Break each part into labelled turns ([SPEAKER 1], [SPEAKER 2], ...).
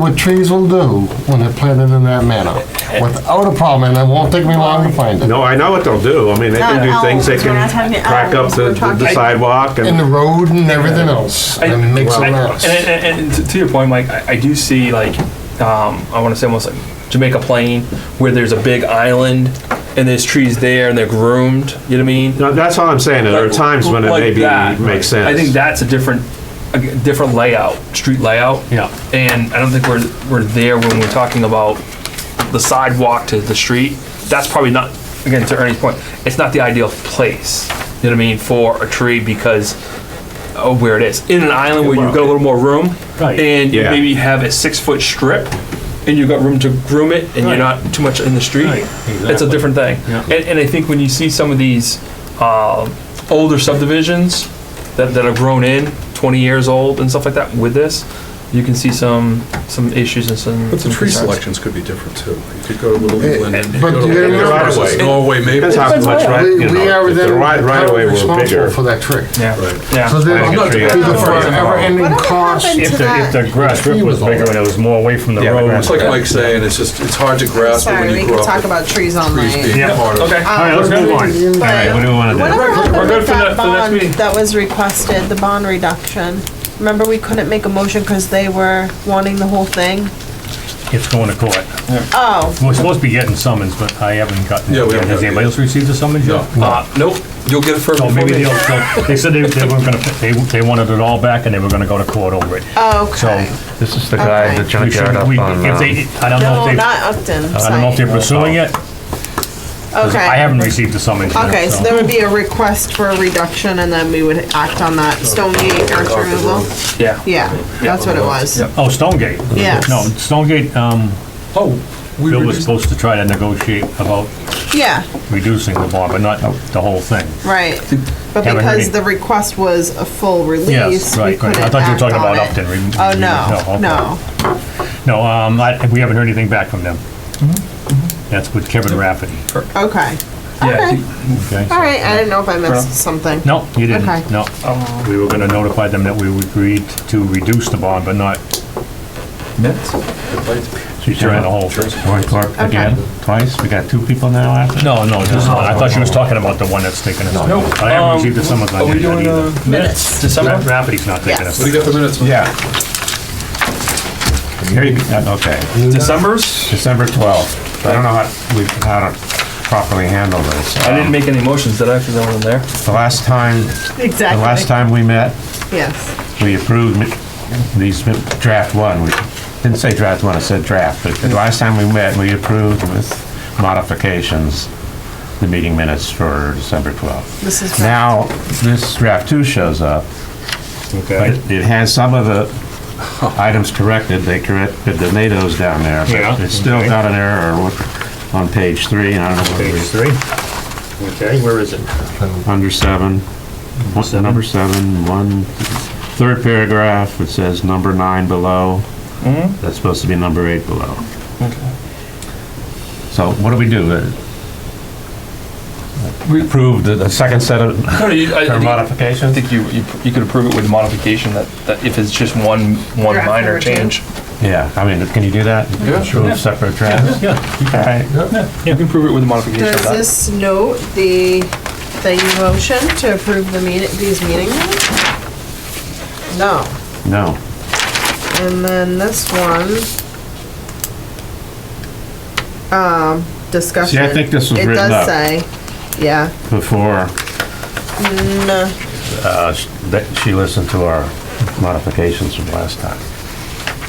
[SPEAKER 1] what trees will do when they're planted in that manner, without a problem, and it won't take me long to find it.
[SPEAKER 2] No, I know what they'll do. I mean, they
[SPEAKER 3] Not
[SPEAKER 2] can do things,
[SPEAKER 3] elms,
[SPEAKER 2] they
[SPEAKER 3] we're not
[SPEAKER 2] can
[SPEAKER 3] talking
[SPEAKER 2] crack up
[SPEAKER 3] elms,
[SPEAKER 2] the
[SPEAKER 3] oh, we're talking-
[SPEAKER 2] the sidewalk
[SPEAKER 1] In the
[SPEAKER 2] and,
[SPEAKER 1] road and everything else, and it makes a
[SPEAKER 4] I-
[SPEAKER 1] mess.
[SPEAKER 4] And, and, and to- to your point, Mike, I, I do see like um, I want to say almost like Jamaica Plain, where there's a big island and there's trees there and they're groomed. You know what I mean?
[SPEAKER 2] No, that's all I'm saying. There are
[SPEAKER 4] Like-
[SPEAKER 2] times when it
[SPEAKER 4] like
[SPEAKER 2] maybe
[SPEAKER 4] that.
[SPEAKER 2] makes sense.
[SPEAKER 4] I think that's a different, a different layout, street layout.
[SPEAKER 2] Yeah.
[SPEAKER 4] And I don't think we're we're there when we're talking about the sidewalk to the street. That's probably not again to Ernie's point. It's not the ideal place. You know what I mean for a tree because of where it is in an island where you've got a little more room,
[SPEAKER 5] Right.
[SPEAKER 4] and you
[SPEAKER 2] Yeah.
[SPEAKER 4] maybe have a six foot strip. And you've got room to groom it, and you're not too much in the street.
[SPEAKER 5] Right,
[SPEAKER 4] It's a
[SPEAKER 5] exactly.
[SPEAKER 4] different thing.
[SPEAKER 5] Yeah.
[SPEAKER 4] And, and I think when you see some of these uh, older subdivisions that, that have grown in, 20 years old and stuff like that with this, you can see some, some issues and some.
[SPEAKER 6] But
[SPEAKER 4] some
[SPEAKER 6] the tree
[SPEAKER 4] concerns.
[SPEAKER 6] selections could be different too. You could go to Little England.
[SPEAKER 1] eh,
[SPEAKER 6] you
[SPEAKER 1] but
[SPEAKER 6] go to
[SPEAKER 1] you
[SPEAKER 6] Little
[SPEAKER 1] remember-
[SPEAKER 6] England versus Norway maple.
[SPEAKER 2] Depends how
[SPEAKER 4] Depends
[SPEAKER 2] much,
[SPEAKER 4] where.
[SPEAKER 2] right,
[SPEAKER 1] We
[SPEAKER 2] you
[SPEAKER 1] we
[SPEAKER 2] know,
[SPEAKER 1] are
[SPEAKER 2] if the
[SPEAKER 1] then
[SPEAKER 2] right, right away were
[SPEAKER 1] responsible
[SPEAKER 2] bigger.
[SPEAKER 1] for that tree.
[SPEAKER 4] Yeah,
[SPEAKER 6] Right.
[SPEAKER 4] yeah.
[SPEAKER 1] So
[SPEAKER 2] I
[SPEAKER 1] then,
[SPEAKER 2] think
[SPEAKER 1] it'll
[SPEAKER 2] a tree
[SPEAKER 1] be the
[SPEAKER 2] is-
[SPEAKER 1] forever ending
[SPEAKER 3] Whatever
[SPEAKER 1] cost.
[SPEAKER 3] happened
[SPEAKER 1] If
[SPEAKER 3] to
[SPEAKER 1] the-
[SPEAKER 3] that?
[SPEAKER 1] if the-
[SPEAKER 5] The grass
[SPEAKER 1] He
[SPEAKER 5] strip was
[SPEAKER 1] was
[SPEAKER 5] bigger
[SPEAKER 1] all-
[SPEAKER 5] and it was more away from the
[SPEAKER 2] Yeah, the
[SPEAKER 5] road.
[SPEAKER 2] grass-
[SPEAKER 6] It's like Mike's saying, it's just, it's hard to grasp it
[SPEAKER 3] Sorry,
[SPEAKER 6] when
[SPEAKER 3] we
[SPEAKER 6] you grow
[SPEAKER 3] could
[SPEAKER 6] up.
[SPEAKER 3] talk
[SPEAKER 6] with
[SPEAKER 3] about trees all
[SPEAKER 6] trees
[SPEAKER 3] night.
[SPEAKER 6] being
[SPEAKER 4] Yeah,
[SPEAKER 6] part of
[SPEAKER 4] okay.
[SPEAKER 6] it.
[SPEAKER 3] Um,
[SPEAKER 5] All right, let's move on. All
[SPEAKER 3] but
[SPEAKER 5] right, what do we want to do?
[SPEAKER 3] Whatever
[SPEAKER 4] We're
[SPEAKER 3] happened
[SPEAKER 4] good
[SPEAKER 3] with
[SPEAKER 4] for the-
[SPEAKER 3] that
[SPEAKER 4] for the next
[SPEAKER 3] bond
[SPEAKER 4] meeting.
[SPEAKER 3] that was requested, the bond reduction? Remember, we couldn't make a motion because they were wanting the whole thing?
[SPEAKER 5] It's going to court.
[SPEAKER 3] Oh,
[SPEAKER 5] We're supposed to be getting summons, but I haven't gotten.
[SPEAKER 6] Yeah,
[SPEAKER 5] it.
[SPEAKER 6] we haven't
[SPEAKER 5] Has
[SPEAKER 6] gotten
[SPEAKER 5] anybody
[SPEAKER 6] it.
[SPEAKER 5] else received a summons yet?
[SPEAKER 4] Uh, nope, you'll get it for
[SPEAKER 5] So
[SPEAKER 4] before
[SPEAKER 5] maybe
[SPEAKER 4] me.
[SPEAKER 5] they'll, they'll- they said they, they weren't gonna, they, they wanted it all back and they were gonna go to court over it. So.
[SPEAKER 3] okay.
[SPEAKER 7] This is the guy,
[SPEAKER 3] Okay.
[SPEAKER 7] the
[SPEAKER 5] we should-
[SPEAKER 7] junkyard up
[SPEAKER 5] we-
[SPEAKER 7] on,
[SPEAKER 5] If
[SPEAKER 7] um,
[SPEAKER 5] they, I don't know if
[SPEAKER 3] No,
[SPEAKER 5] they,
[SPEAKER 3] not
[SPEAKER 5] I
[SPEAKER 3] Upton,
[SPEAKER 5] don't know if they're
[SPEAKER 3] sorry.
[SPEAKER 5] pursuing it. I
[SPEAKER 3] Okay.
[SPEAKER 5] haven't received the summons yet.
[SPEAKER 3] Okay, so there would be a request for a reduction and then we would act on that. Stonegate earth removal?
[SPEAKER 4] Yeah.
[SPEAKER 3] Yeah, that's what it was.
[SPEAKER 5] Oh, Stonegate.
[SPEAKER 3] Yes.
[SPEAKER 5] No, Stonegate, um,
[SPEAKER 6] Oh, we
[SPEAKER 5] Bill was
[SPEAKER 6] reduced,
[SPEAKER 5] supposed to try to negotiate about
[SPEAKER 3] Yeah,
[SPEAKER 5] reducing the bond, but
[SPEAKER 7] Oh.
[SPEAKER 5] not the whole thing.
[SPEAKER 3] right. But
[SPEAKER 5] Haven't heard
[SPEAKER 3] because
[SPEAKER 5] any-
[SPEAKER 3] the request was a full release,
[SPEAKER 5] Yes,
[SPEAKER 3] we
[SPEAKER 5] right, right.
[SPEAKER 3] couldn't
[SPEAKER 5] I thought you were
[SPEAKER 3] act
[SPEAKER 5] talking
[SPEAKER 3] on
[SPEAKER 5] about
[SPEAKER 3] it.
[SPEAKER 5] Upton. re-
[SPEAKER 3] Oh,
[SPEAKER 5] re-
[SPEAKER 3] no,
[SPEAKER 5] okay.
[SPEAKER 3] no.
[SPEAKER 5] No, um, I, we haven't heard anything back from them.
[SPEAKER 7] Mm-hmm,
[SPEAKER 5] That's with Kevin Rafferty,
[SPEAKER 3] Okay.
[SPEAKER 4] Yeah, I think-
[SPEAKER 5] okay? so-
[SPEAKER 3] All right, I didn't know if I missed something.
[SPEAKER 5] No, you didn't,
[SPEAKER 3] Okay.
[SPEAKER 5] no.
[SPEAKER 4] um,
[SPEAKER 5] We were gonna notify them that we agreed to reduce the bond, but not during
[SPEAKER 7] she's doing
[SPEAKER 5] the
[SPEAKER 7] a whole,
[SPEAKER 5] whole thing.
[SPEAKER 7] Roy Clark again, twice, we got two people now after? Oh.
[SPEAKER 5] No, no, this is, I thought she was talking about the one that's taking us.
[SPEAKER 4] Nope.
[SPEAKER 5] I haven't
[SPEAKER 4] Um,
[SPEAKER 5] received the summons
[SPEAKER 4] Are
[SPEAKER 5] on
[SPEAKER 4] we
[SPEAKER 5] yet
[SPEAKER 4] doing
[SPEAKER 5] either.
[SPEAKER 4] uh, minutes? December?
[SPEAKER 5] Rafferty's not taking
[SPEAKER 3] Yes.
[SPEAKER 5] us.
[SPEAKER 6] what do you got the minutes?
[SPEAKER 7] Yeah. Here you go. Okay,
[SPEAKER 4] December's?
[SPEAKER 7] December 12th. I don't know how, we, how to properly handle this.
[SPEAKER 4] I didn't make any motions, did I? Because I wasn't there.
[SPEAKER 7] The last time, the last
[SPEAKER 3] Exactly.
[SPEAKER 7] time we met,
[SPEAKER 3] Yes.
[SPEAKER 7] we approved mi- these mi- draft one, we didn't say draft one, I said draft, but the last time we met, we approved with modifications, the meeting minutes for December 12th.
[SPEAKER 3] This is
[SPEAKER 7] Now, this draft two shows up,
[SPEAKER 5] Okay.
[SPEAKER 7] but it has some of the items corrected, they corrected the NATO's down there,
[SPEAKER 5] Yeah,
[SPEAKER 7] but it's still
[SPEAKER 5] okay.
[SPEAKER 7] got an error on page three, and I don't know what it
[SPEAKER 5] Page
[SPEAKER 7] is,
[SPEAKER 5] three. Okay, where is it?
[SPEAKER 7] under seven, what's the number seven, one, third paragraph, it says number nine below. That's supposed to be number eight below. So what do we do? Uh, We approved the the second set of
[SPEAKER 4] No, no, you- I- I
[SPEAKER 7] or
[SPEAKER 4] think- I
[SPEAKER 7] modifications?
[SPEAKER 4] think you, you, you could approve it with modification that, that if it's just one, one
[SPEAKER 3] Draft
[SPEAKER 4] minor
[SPEAKER 3] number two.
[SPEAKER 4] change.
[SPEAKER 7] Yeah, I mean, can you do that? Yeah. Approve separate drafts?
[SPEAKER 5] Yeah,
[SPEAKER 7] All right.
[SPEAKER 4] You can approve it with a modification of
[SPEAKER 3] Does
[SPEAKER 4] that.
[SPEAKER 3] this note the, the motion to approve the meeting, these meeting minutes? No.
[SPEAKER 7] No.
[SPEAKER 3] And then this one. Um, discussion.
[SPEAKER 7] think this was
[SPEAKER 3] It
[SPEAKER 7] written
[SPEAKER 3] does
[SPEAKER 7] up.
[SPEAKER 3] say, yeah,
[SPEAKER 7] Before
[SPEAKER 3] no,
[SPEAKER 7] uh, sh- that she listened to our modifications from last time.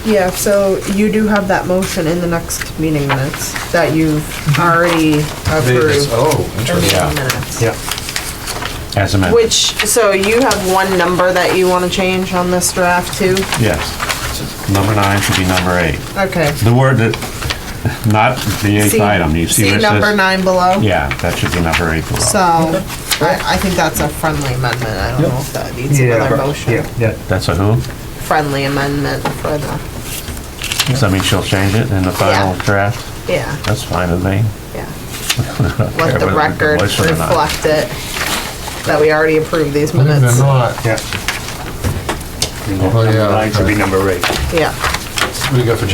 [SPEAKER 3] yeah, so you do have that motion in the next meeting minutes that you've
[SPEAKER 1] Mhm.
[SPEAKER 3] already approved.
[SPEAKER 6] Oh,
[SPEAKER 3] in the
[SPEAKER 6] interesting.
[SPEAKER 7] Yeah.
[SPEAKER 3] minutes.
[SPEAKER 5] yeah.
[SPEAKER 7] As amended.
[SPEAKER 3] Which, so you have one number that you wanna change on this draft too?
[SPEAKER 7] Yes. Number nine should be number eight.
[SPEAKER 3] Okay.
[SPEAKER 7] The word that, not the eighth
[SPEAKER 3] See-
[SPEAKER 7] item, you see where it
[SPEAKER 3] number
[SPEAKER 7] says?
[SPEAKER 3] nine below?
[SPEAKER 7] Yeah, that should be number eight
[SPEAKER 3] So,
[SPEAKER 7] below.
[SPEAKER 3] I, I think that's a friendly amendment, I don't know if that needs
[SPEAKER 5] Yeah,
[SPEAKER 3] another
[SPEAKER 5] right,
[SPEAKER 3] motion.
[SPEAKER 5] Yeah,
[SPEAKER 7] That's a who?
[SPEAKER 3] Friendly amendment for the,
[SPEAKER 7] So I mean, she'll change it in the final
[SPEAKER 3] Yeah.
[SPEAKER 7] draft?
[SPEAKER 3] yeah,
[SPEAKER 7] That's fine with me.
[SPEAKER 3] yeah.
[SPEAKER 7] care
[SPEAKER 3] Let the
[SPEAKER 7] whether we
[SPEAKER 3] record
[SPEAKER 7] voice it or not.
[SPEAKER 3] reflect it, that we already approved these
[SPEAKER 1] Believe it or
[SPEAKER 3] minutes,
[SPEAKER 1] not, uh,
[SPEAKER 5] yeah.
[SPEAKER 1] yeah,
[SPEAKER 5] Number nine should be
[SPEAKER 1] okay.
[SPEAKER 5] number eight.
[SPEAKER 3] yeah.
[SPEAKER 1] we got the